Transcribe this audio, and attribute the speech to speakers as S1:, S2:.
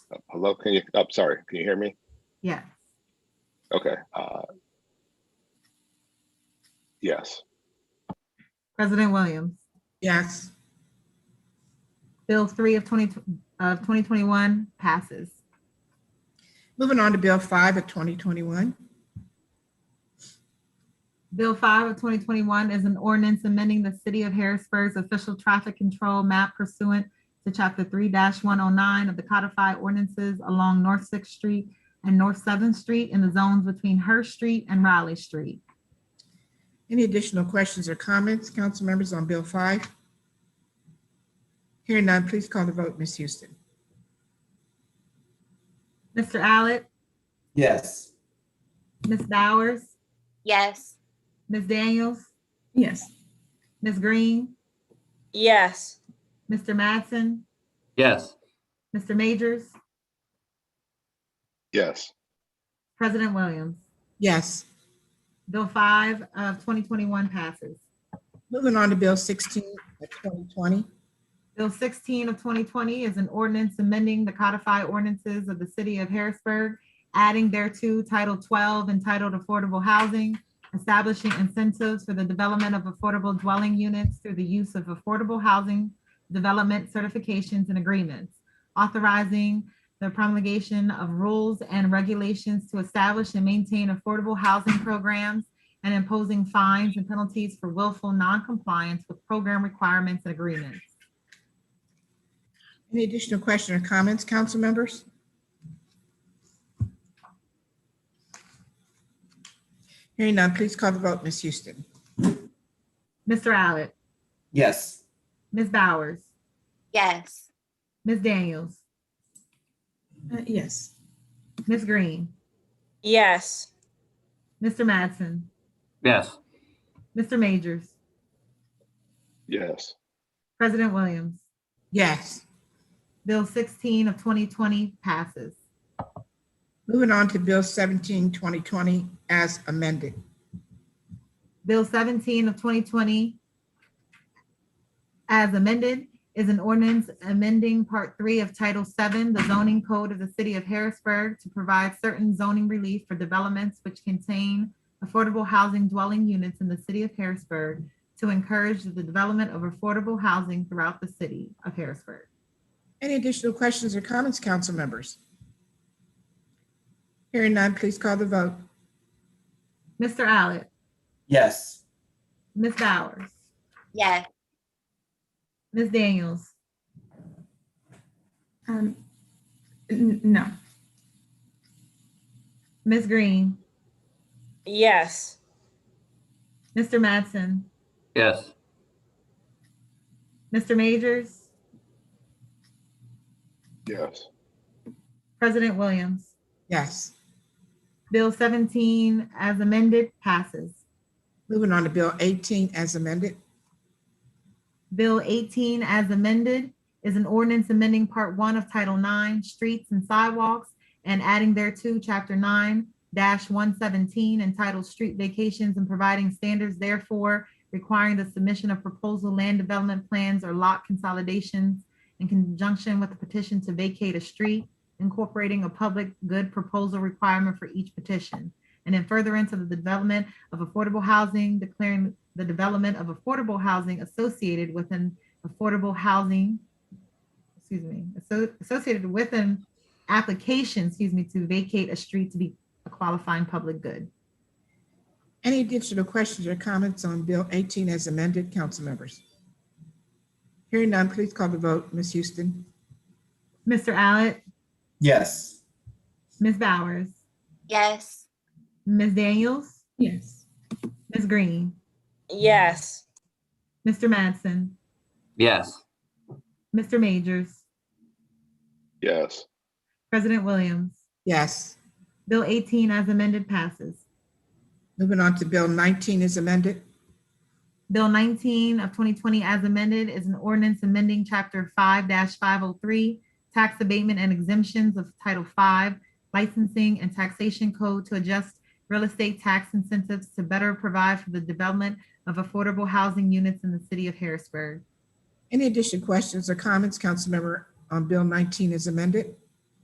S1: Hello, can you, I'm sorry, can you hear me?
S2: Yeah,
S1: Okay. uh, Yes,
S2: President Williams.
S3: Yes.
S2: Bill three of twenty, of twenty twenty-one passes.
S3: Moving on to Bill 5 of 2021.
S2: Bill five of twenty twenty-one is an ordinance amending the city of Harrisburg's official traffic control map pursuant to chapter three one oh nine of the codified ordinances along North Sixth Street and North Seventh Street in the zones between Hurst Street and Raleigh Street.
S3: Any additional questions or comments, council members on Bill 5? Hearing none, please call the vote, Ms. Houston.
S2: Mr. Allen,
S4: yes,
S2: Ms. Bowers,
S5: Yes.
S2: Ms. Daniels,
S3: Yes.
S2: Ms. Green,
S5: Yes.
S2: Mr. Mattson,
S6: yes,
S2: Mr. Majors,
S1: yes,
S2: President Williams.
S3: Yes.
S2: Bill five of twenty twenty-one passes.
S3: Moving on to Bill 16 of 2020.
S2: Bill sixteen of twenty twenty is an ordinance amending the codified ordinances of the city of Harrisburg, adding thereto Title twelve entitled Affordable Housing, establishing incentives for the development of affordable dwelling units through the use of affordable housing development certifications and agreements, authorizing the promulgation of rules and regulations to establish and maintain affordable housing programs, and imposing fines and penalties for willful noncompliance with program requirements and agreements.
S3: Any additional question or comments, council members? Hearing none, please call the vote, Ms. Houston.
S2: Mr. Allen,
S4: yes,
S2: Ms. Bowers,
S5: Yes.
S2: Ms. Daniels,
S3: Uh, Yes.
S2: Ms. Green,
S5: Yes.
S2: Mr. Mattson,
S6: yes,
S2: Mr. Majors,
S1: yes,
S2: President Williams.
S3: Yes.
S2: Bill 16 of 2020 passes.
S3: Moving on to Bill 17, 2020, as amended.
S2: Bill 17 of 2020 as amended is an ordinance amending Part 3 of Title 7, the zoning code of the city of Harrisburg to provide certain zoning relief for developments which contain affordable housing dwelling units in the city of Harrisburg to encourage the development of affordable housing throughout the city of Harrisburg.
S3: Any additional questions or comments, council members? Hearing none, please call the vote.
S2: Mr. Allen,
S4: yes,
S2: Ms. Bowers,
S5: Yes.
S2: Ms. Daniels,
S7: Um, n- no,
S2: Ms. Green,
S5: Yes.
S2: Mr. Mattson,
S6: yes,
S2: Mr. Majors,
S1: yes,
S2: President Williams.
S3: Yes.
S2: Bill seventeen as amended passes.
S3: Moving on to Bill 18 as amended.
S2: Bill eighteen as amended is an ordinance amending part one of Title IX, Streets and Sidewalks, and adding thereto Chapter nine one seventeen entitled Street Vacations and providing standards therefore requiring the submission of proposal land development plans or lot consolidations in conjunction with the petition to vacate a street, incorporating a public good proposal requirement for each petition. And in furtherance of the development of affordable housing, declaring the development of affordable housing associated with an affordable housing, excuse me, asso- associated with an application, excuse me, to vacate a street to be a qualifying public good.
S3: Any additional questions or comments on Bill 18 as amended, council members? Hearing none, please call the vote. Ms. Houston?
S2: Mr. Allen,
S4: yes,
S2: Ms. Bowers,
S5: Yes.
S2: Ms. Daniels,
S7: yes,
S2: Ms. Green,
S5: Yes.
S2: Mr. Madsen,
S6: yes,
S2: Mr. Majors,
S1: yes,
S2: President Williams.
S3: Yes.
S2: Bill 18 as amended passes.
S3: Moving on to Bill 19 as amended.
S2: Bill 19 of 2020 as amended is an ordinance amending Chapter 5-503, Tax Abatement and Exemptions of Title 5, Licensing and Taxation Code to adjust real estate tax incentives to better provide for the development of affordable housing units in the city of Harrisburg.
S3: Any additional questions or comments, council member, on Bill 19 as amended?